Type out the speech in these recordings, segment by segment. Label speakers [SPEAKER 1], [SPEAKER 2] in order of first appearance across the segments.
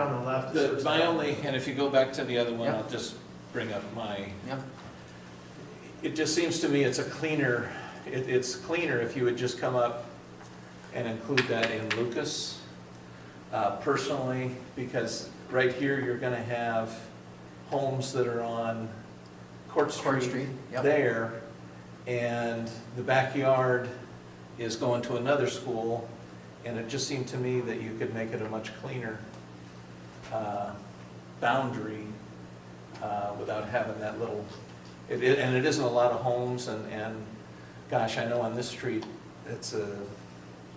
[SPEAKER 1] Uh, the, my only, and if you go back to the other one,
[SPEAKER 2] Yeah.
[SPEAKER 1] I'll just bring up my,
[SPEAKER 2] Yeah,
[SPEAKER 1] it just seems to me it's a cleaner, it, it's cleaner if you would just come up and include that in Lucas, uh, personally, because right here, you're gonna have homes that are on Court
[SPEAKER 2] Court Street,
[SPEAKER 1] Street
[SPEAKER 2] yep,
[SPEAKER 1] there, and the backyard is going to another school, and it just seemed to me that you could make it a much cleaner uh, boundary uh, without having that little, it, it- and it isn't a lot of homes, and, and, gosh, I know on this street, it's a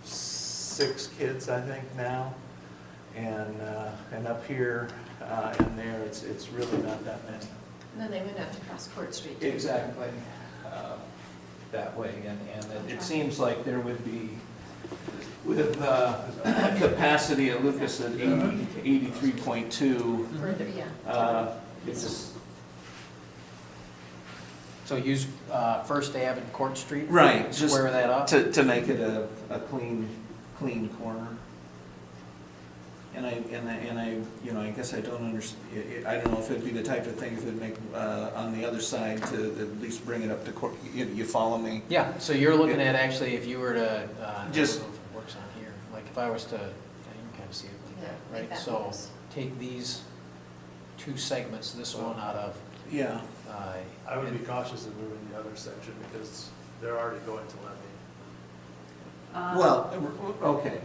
[SPEAKER 1] six kids, I think, now, and, uh, and up here uh, and there, it's, it's really not that many.
[SPEAKER 3] And then they would have to cross Court Street. too.
[SPEAKER 1] Exactly, uh, that way, and, and it- it seems like there would be, with uh, a capacity at Lucas at 80 83.2,
[SPEAKER 3] Further, yeah.
[SPEAKER 1] uh, it's just.
[SPEAKER 2] so use uh, First Ave and Court Street.
[SPEAKER 1] Right, just
[SPEAKER 2] Square that up.
[SPEAKER 1] To, to make it a, a clean, clean corner. And I, and I, and I, you know, I guess I don't underst, I I don't know if it'd be the type of thing that would make, uh, on the other side to at least bring it up to court, you, you follow me?
[SPEAKER 2] Yeah, so you're looking at actually, if you were to, uh,
[SPEAKER 1] Just-
[SPEAKER 2] I don't know if it works on here, like if I was to, yeah, you can kind of see it like
[SPEAKER 3] Yeah,
[SPEAKER 2] that,
[SPEAKER 3] like
[SPEAKER 2] right?
[SPEAKER 3] that
[SPEAKER 2] So
[SPEAKER 3] works.
[SPEAKER 2] take these two segments, this one out of,
[SPEAKER 1] Yeah.
[SPEAKER 2] uh,
[SPEAKER 4] I would be
[SPEAKER 2] and-
[SPEAKER 4] cautious of moving the other section because they're already going to Lemmy.
[SPEAKER 3] Um,
[SPEAKER 1] Well, okay,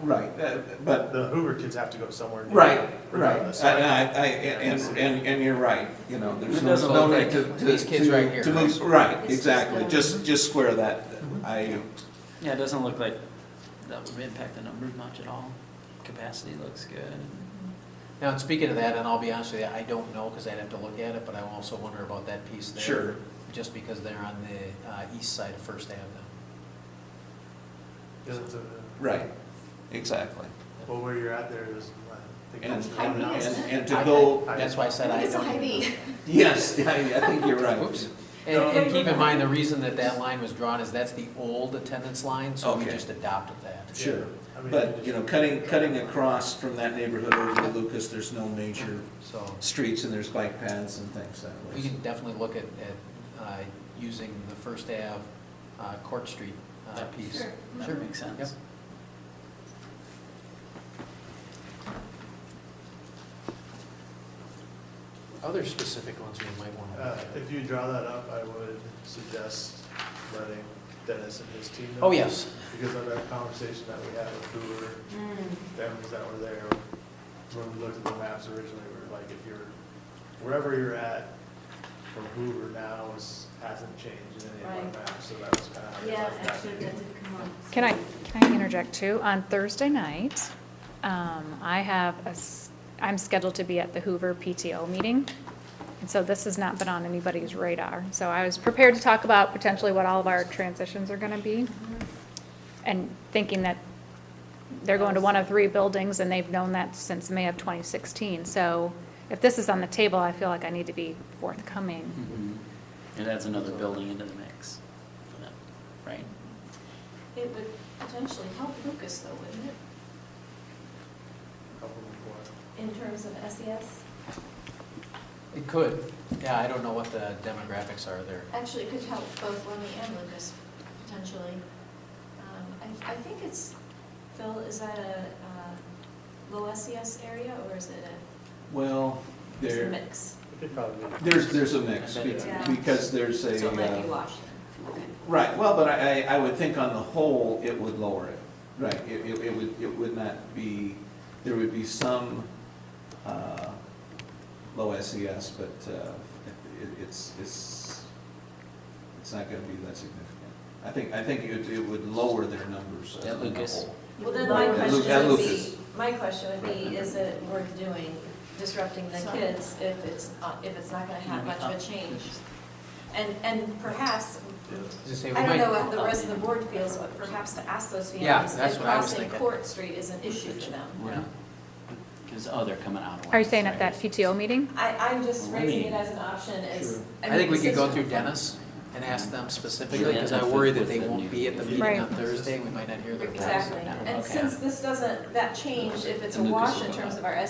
[SPEAKER 1] right, uh, but,
[SPEAKER 4] The Hoover kids have to go somewhere. new
[SPEAKER 1] right, right.
[SPEAKER 4] regardless.
[SPEAKER 1] I- I- I- And, and, and you're right, you know, there's
[SPEAKER 2] It
[SPEAKER 1] no,
[SPEAKER 2] doesn't
[SPEAKER 1] no
[SPEAKER 2] look
[SPEAKER 1] need
[SPEAKER 2] like
[SPEAKER 1] to. to-
[SPEAKER 2] these kids
[SPEAKER 1] to-
[SPEAKER 2] right here.
[SPEAKER 1] To move, right,
[SPEAKER 3] It's just Mm-hmm.
[SPEAKER 1] exactly,
[SPEAKER 3] the-
[SPEAKER 1] just, just square that, I,
[SPEAKER 5] Yeah, it doesn't look like that would impact the numbers much at all. Capacity looks good.
[SPEAKER 2] Now, and speaking of that, and I'll be honest with you, I don't know, because I'd have to look at it, but I also wonder about that piece there.
[SPEAKER 1] sure.
[SPEAKER 2] Just because they're on the uh, east side of First Avenue.
[SPEAKER 4] Because it's a-
[SPEAKER 1] Right, exactly.
[SPEAKER 4] Well, where you're at there is. I think
[SPEAKER 1] And,
[SPEAKER 4] it's the
[SPEAKER 1] and,
[SPEAKER 4] one house.
[SPEAKER 1] and- and to
[SPEAKER 2] I-
[SPEAKER 1] go,
[SPEAKER 2] That's why I said I
[SPEAKER 3] I think it's a
[SPEAKER 2] don't.
[SPEAKER 3] high V.
[SPEAKER 1] yes, I, I think you're right.
[SPEAKER 2] Oops. And, and keep in mind, the reason that that line was drawn is that's the old attendance line, so we
[SPEAKER 1] Okay.
[SPEAKER 2] just adopted that.
[SPEAKER 1] Sure,
[SPEAKER 4] I mean,
[SPEAKER 1] but, you know, cutting, cutting across from that neighborhood over to Lucas, there's no major
[SPEAKER 2] So
[SPEAKER 1] streets and there's bike paths and things that
[SPEAKER 2] we
[SPEAKER 1] way.
[SPEAKER 2] can definitely look at, at uh, using the First Ave uh, Court Street uh,
[SPEAKER 5] Yeah.
[SPEAKER 2] piece.
[SPEAKER 3] Sure.
[SPEAKER 5] That makes sense.
[SPEAKER 2] Other specific ones we might want to
[SPEAKER 4] Uh,
[SPEAKER 2] look at.
[SPEAKER 4] If you draw that up, I would suggest letting Dennis and his team know.
[SPEAKER 2] Oh, yes,
[SPEAKER 4] Because of that conversation that we had with Hoover,
[SPEAKER 3] Mm,
[SPEAKER 4] families that were there, when we looked at the maps originally, we were like, if you're, wherever you're at from Hoover now is, hasn't changed in any of
[SPEAKER 3] Right.
[SPEAKER 4] our maps, so that was kind of.
[SPEAKER 3] Yeah, actually, that did come up.
[SPEAKER 6] Can I, can I interject too? On Thursday night, um, I have a, s- I'm scheduled to be at the Hoover PTO meeting. And so this has not been on anybody's radar. So I was prepared to talk about potentially what all of our transitions are gonna be.
[SPEAKER 3] Mm-hmm.
[SPEAKER 6] And thinking that they're going to one of three buildings and they've known that since May of twenty sixteen. So if this is on the table, I feel like I need to be forthcoming.
[SPEAKER 5] Mhm. It adds another building into the mix for them, right?
[SPEAKER 3] It would potentially help Lucas though, wouldn't it, in terms of E SES?
[SPEAKER 2] it could. Yeah, I don't know what the demographics are there.
[SPEAKER 3] Actually, it could help both Lemmy and Lucas potentially. Um, I, I think it's, Phil, is that a uh, low SES area or is it a-
[SPEAKER 1] Well,
[SPEAKER 3] it's a
[SPEAKER 1] there,
[SPEAKER 3] mix?
[SPEAKER 4] Could probably.
[SPEAKER 1] there's, there's a mix be-
[SPEAKER 3] Yeah.
[SPEAKER 1] because there's
[SPEAKER 3] So
[SPEAKER 1] a.
[SPEAKER 3] it might be
[SPEAKER 1] uh,
[SPEAKER 3] washed then. Okay.
[SPEAKER 1] Right, well, but I, I I would think on the whole, it would lower it. Right, it, it it would, it would not be, there would be some, uh, low SES, but, uh, it, it's, it's, it's not gonna be that significant. I think, I think it, it would lower their numbers
[SPEAKER 5] Yeah,
[SPEAKER 1] on the
[SPEAKER 5] Lucas.
[SPEAKER 1] whole.
[SPEAKER 7] Well, then my
[SPEAKER 1] Right.
[SPEAKER 7] question
[SPEAKER 1] That
[SPEAKER 7] would
[SPEAKER 1] Lucas.
[SPEAKER 7] be, my question would be, is it worth doing, disrupting the
[SPEAKER 3] Sorry.
[SPEAKER 7] kids if it's, uh, if it's not gonna have much of a change? And, and perhaps,
[SPEAKER 2] As I say, we
[SPEAKER 7] I don't
[SPEAKER 2] might-
[SPEAKER 7] know how the rest of the board feels, but perhaps to ask those
[SPEAKER 2] Yeah,
[SPEAKER 7] families
[SPEAKER 2] that's
[SPEAKER 7] if
[SPEAKER 2] what I was
[SPEAKER 7] crossing
[SPEAKER 2] thinking.
[SPEAKER 7] Court Street is an issue to them.
[SPEAKER 2] Yeah.
[SPEAKER 5] Because, oh, they're coming out. of
[SPEAKER 6] Are you
[SPEAKER 5] line,
[SPEAKER 6] saying at
[SPEAKER 5] right.
[SPEAKER 6] that PTO meeting?
[SPEAKER 7] I, I'm just
[SPEAKER 5] Well, let
[SPEAKER 7] raising
[SPEAKER 5] me-
[SPEAKER 7] it as an option
[SPEAKER 1] Sure.
[SPEAKER 7] as.
[SPEAKER 2] I think we
[SPEAKER 7] mean,
[SPEAKER 2] could go
[SPEAKER 7] this is-
[SPEAKER 2] through Dennis and ask them specifically,
[SPEAKER 5] Yeah,
[SPEAKER 2] because I
[SPEAKER 5] that's
[SPEAKER 2] worry
[SPEAKER 5] the-
[SPEAKER 2] that they
[SPEAKER 5] with the
[SPEAKER 2] won't be at the
[SPEAKER 5] new-
[SPEAKER 2] meeting
[SPEAKER 6] Right.
[SPEAKER 2] on Thursday, we might not hear their voices.
[SPEAKER 7] Exactly,
[SPEAKER 2] now.
[SPEAKER 7] and
[SPEAKER 5] Okay.
[SPEAKER 7] since this doesn't, that change, if it's a
[SPEAKER 5] And Lucas
[SPEAKER 7] wash
[SPEAKER 5] will
[SPEAKER 7] in
[SPEAKER 5] go
[SPEAKER 7] terms
[SPEAKER 5] out.
[SPEAKER 7] of our